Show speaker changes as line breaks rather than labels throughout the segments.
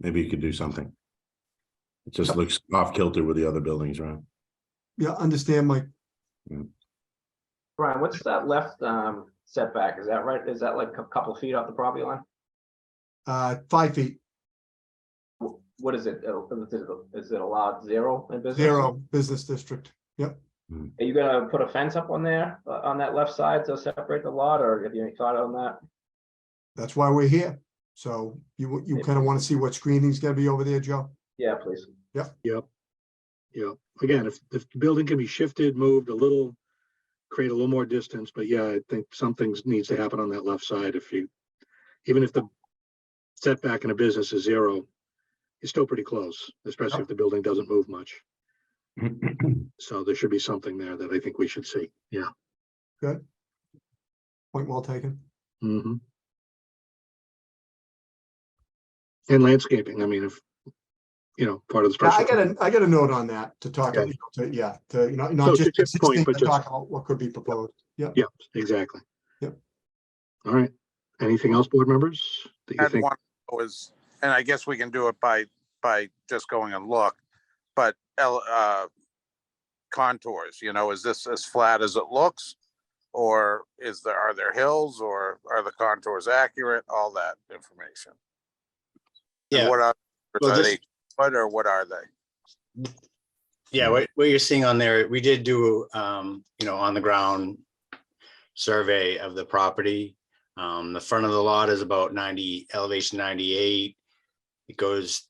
Maybe you could do something. It just looks off kilter with the other buildings, right?
Yeah, understand, Mike.
Brian, what's that left um setback? Is that right? Is that like a couple feet off the property line?
Uh, five feet,
Wh- What is it? Uh, Is it- is it allowed zero in business?
zero, business district.
Are you gonna put a fence up on there, uh, on that left side to separate the lot, or have you any thought on that?
That's why we're here. So you, you kind of want to see what screening's gonna be over there, Joe?
Yeah, please.
Yep. Yep. Again, if, if the building can be shifted, moved a little, create a little more distance, but yeah, I think something needs to happen on that left side if you, even if the setback in a business is zero, it's still pretty close, especially if the building doesn't move much. So there should be something there that I think we should see. Yeah.
Point well taken.
hmm And landscaping, I mean, if, you know, part of the
Yeah, I
special.
got a, I got a note on that to talk,
Okay.
you know, to, yeah, to, you know,
So
not
to
just
Chip's point,
existing,
but
but
just-
talk about what could be proposed.
Yep, exactly.
Yep.
All right. Anything else, board members? that you
had
think?
one was, and I guess we can do it by, by just going and look, but L, uh, contours, you know, is this as flat as it looks? Or is there, are there hills or are the contours accurate? All that information. And
Yeah.
What are,
Well,
are
this-
they, what or what are they?
Yeah, what, what you're seeing on there, we did do, um, you know, on the ground survey of the property. Um, the front of the lot is about ninety, elevation ninety-eight. It goes,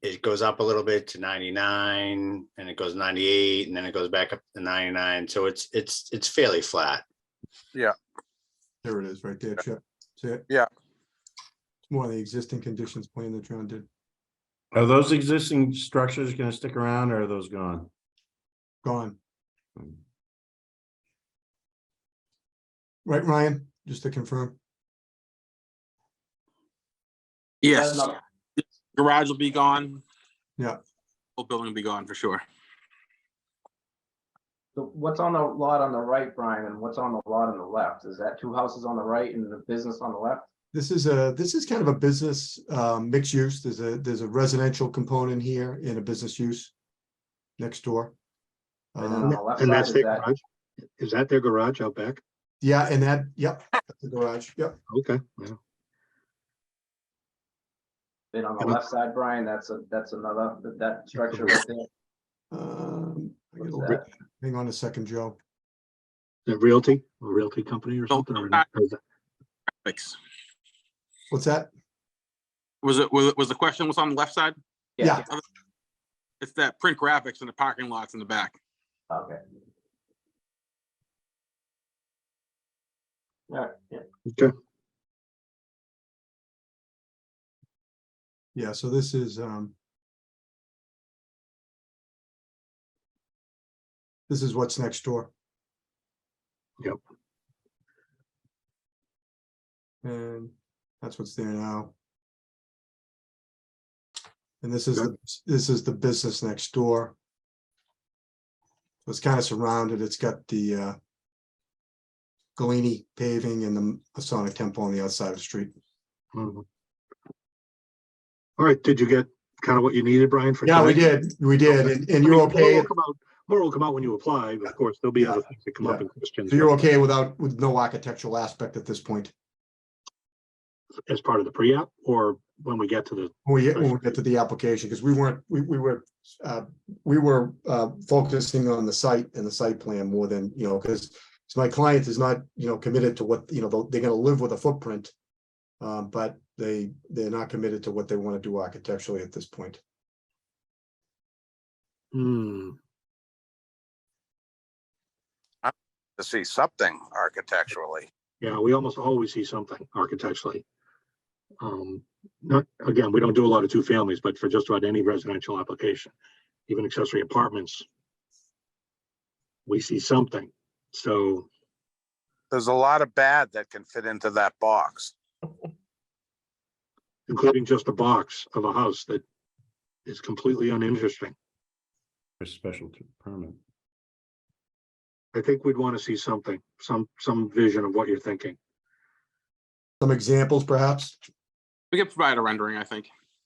it goes up a little bit to ninety-nine and it goes ninety-eight and then it goes back up to ninety-nine. So it's, it's, it's fairly flat.
There it is, right there, Chip. That's it.
Yeah.
It's more of the existing conditions plan that John did,
Are those existing structures gonna stick around or are those gone?
gone.
Mm.
Right, Ryan, just to confirm.
Yes,
Another-
garage will be gone.
Yeah.
Whole building will be gone for sure.
so What's on the lot on the right, Brian, and what's on the lot on the left? Is that two houses on the right and the business on the left?
This is a, this is kind of a business, um, mixed use. There's a, there's a residential component here and a business use next door.
And then
Um,
on the left
And
side
that's
is
their
that,
garage? Is that their garage out back?
Yeah, and that, yep, that's the garage, yep,
Okay, yeah,
then on the
And I-
left side, Brian, that's a, that's another, that- that structure right there.
um, I gotta
What's
look-
that?
hang on a second, Joe.
the realty, a realty company or
No,
something? or
I'm
not?
not-
Or is that-
Thanks.
What's that?
Was it, was, was the question what's on the left side?
Yeah,
It's that print graphics and the parking lots in the back.
Okay. All right, yeah.
Okay,
yeah, so this is, um. This is what's next door.
Yep.
And that's what's there now. And this is, the this is the business next door. So It's kind of surrounded, it's got the, uh. Galini paving and the Masonic Temple on the outside of the street.
mhm. All right, did you get kind of what you needed, Brian? for
Yeah, we
tonight?
did, we did, and, and you're
I mean, More
okay,
will come out- more will come out when you apply, but of course, there'll be
Yeah.
other things that come up in questions.
so you're okay without, with no architectural aspect at this point.
As part of the pre-app or when we get to the,
When we, when we get to the application, because we weren't, we, we were, uh, we were, uh, focusing on the site and the site plan more than, you know, because my client is not, you know, committed to what, you know, they're gonna live with a footprint. Um, but they, they're not committed to what they want to do architecturally at this point.
hmm,
To see something architecturally.
Yeah, we almost always see something architecturally. Um, not, again, we don't do a lot of two families, but for just about any residential application, even accessory apartments. We see something, so,
There's a lot of bad that can fit into that box.
including just a box of a house that is completely uninteresting.
For special t- permit.
I think we'd want to see something, some, some vision of what you're thinking.
Some examples perhaps?
We could provide a rendering, I think.